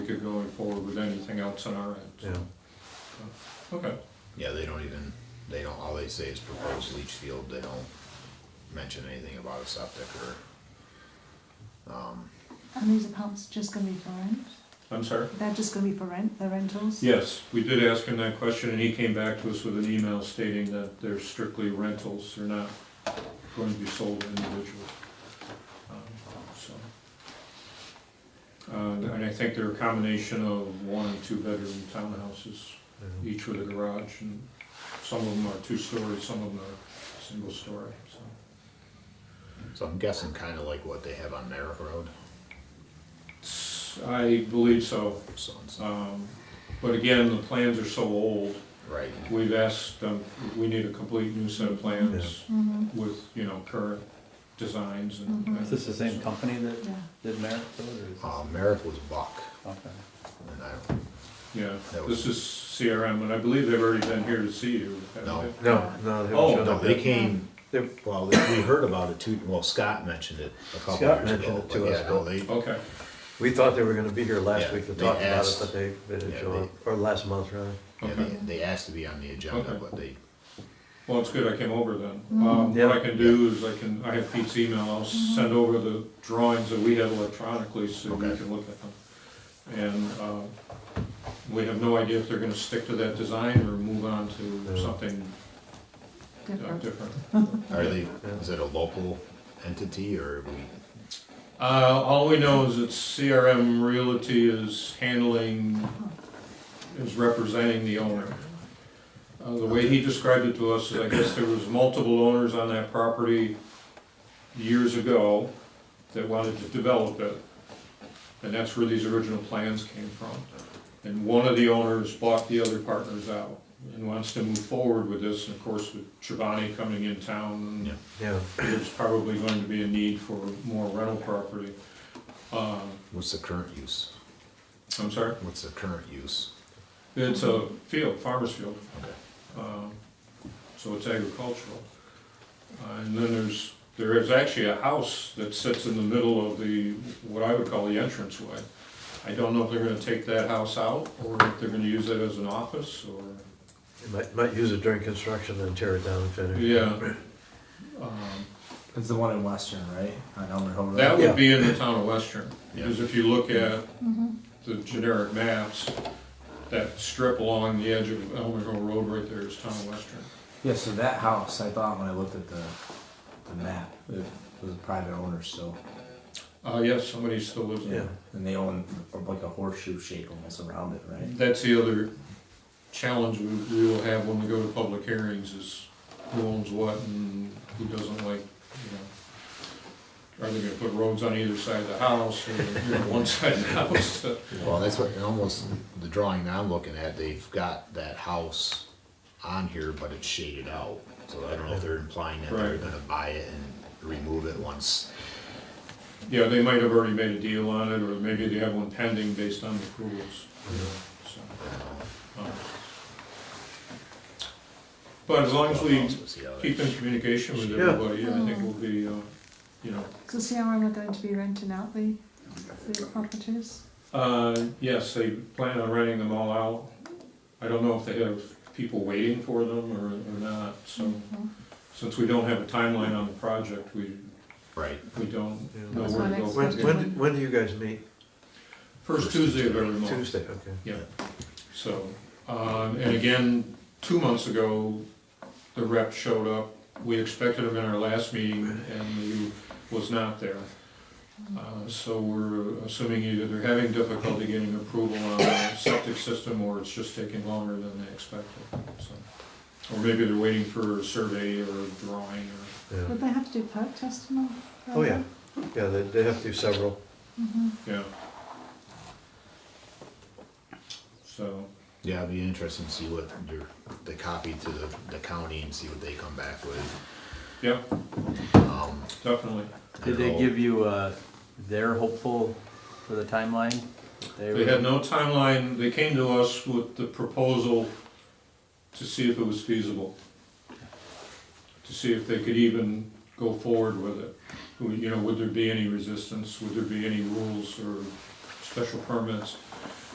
to going forward with anything else on our end. Yeah. Okay, Yeah, they don't even, they don't, all they say is proposed leach field, they don't mention anything about a septic or, um, And these apartments just gonna be for rent? I'm sorry? They're just gonna be for rent, the rentals? Yes, we did ask him that question, and he came back to us with an email stating that they're strictly rentals, they're not going to be sold to individuals. Um, So, Uh, And I think they're a combination of one and two-bedroom townhouses, yeah. each with a garage, and some of them are two-story, some of them are single-story, so. so I'm guessing kinda like what they have on Merrick Road, I believe so. so it's, Um, But again, the plans are so old, right, We've asked them, we need a complete new set of plans Mm-hmm, with, you know, current designs and. Mhm. Is this the same company that yeah. did Merrick Road or is this? uh, Merrick was Buck, Okay. and I don't, Yeah, That was- this is CRM, and I believe they've already been here to see you. haven't No. they? No, no, they Oh, haven't shown no, up they yet. came, They- well, they- we heard about it too, well, Scott mentioned it a couple Scott years mentioned ago, it but to yeah, us, no, but- they, Okay, We thought they were gonna be here last Yeah, week to they talk about it, asked- but they, they didn't yeah, show they- up, or last month, rather. yeah, okay. they, they asked to be on the agenda, Okay. but they, Well, it's good I came over then. Um, Yeah. what I can do is I can, I have Pete's email, I'll send over the drawings that we have electronically so you Okay. can look at them. And, uh, we have no idea if they're gonna stick to that design or move on to Yeah. something uh, Different. different. are they, is it a local entity, or are we? Uh, all we know is that CRM Realty is handling, is representing the owner. Uh, the way he described it to us is, I guess there was multiple owners on that property years ago that wanted to develop it. And that's where these original plans came from. And one of the owners bought the other partners out and wants to move forward with this, and of course, with Chobani coming in town, Yeah. Yeah, there's probably going to be a need for more rental property. Um, What's the current use? I'm sorry, What's the current use? it's a field, farmer's field, Okay. um, so it's agricultural. Uh, And then there's, there is actually a house that sits in the middle of the, what I would call the entranceway. I don't know if they're gonna take that house out, or if they're gonna use it as an office, or They might, might use it during construction, then tear it down and finish. Yeah. Um, It's the one in Western, right? On Elmer Hill Road. That Yeah. would be in the town of Western, Yeah. because if you look at Mhm. the generic maps, that strip along the edge of Elmer Hill Road right there is town of Western. yeah, so that house, I thought when I looked at the the map, it was a private owner still. Uh, yes, somebody still lives Yeah, there. And they own like a horseshoe shape almost around it, right? That's the other challenge we, we will have when we go to public hearings is who owns what and who doesn't like, you know. Are they gonna put roads on either side of the house or, you know, one side of the house? Well, that's what, and almost, the drawing that I'm looking at, they've got that house on here, but it's shaded out. So I don't know if they're implying that they're Right. gonna buy it and remove it once. Yeah, they might have already made a deal on it, or maybe they have one pending based on the approvals. So, um, But as long as we See how that- keep in communication with everybody, I think we'll be, uh, you know, So CRM are going to be renting out the, the properties? uh, yes, they plan on renting them all out. I don't know if they have people waiting for them or, or not, so Mhm. since we don't have a timeline on the project, we, Right, we don't yeah. know That's where my to go. from next When, question. here. when, when do you guys meet? First Tuesday of every month. Tuesday, okay. So, um, and again, two months ago, the rep showed up. We expected him in our last meeting and he was not there. Uh, So we're assuming either they're having difficulty getting approval on the septic system or it's just taking longer than they expected, so. Or maybe they're waiting for a survey or a drawing or, Yeah. Would they have to do perk testing or? Oh, yeah, yeah, they, they have to do several. Mm-hmm. yeah. So, yeah, it'd be interesting to see what your, the copy to the, the county and see what they come back with. yeah, Um, definitely. I Did they don't know. give you, uh, their hopeful for the timeline? They had no timeline, they came to us with the proposal to see if it was feasible. To see if they could even go forward with it. Who- You know, would there be any resistance, would there be any rules or special permits.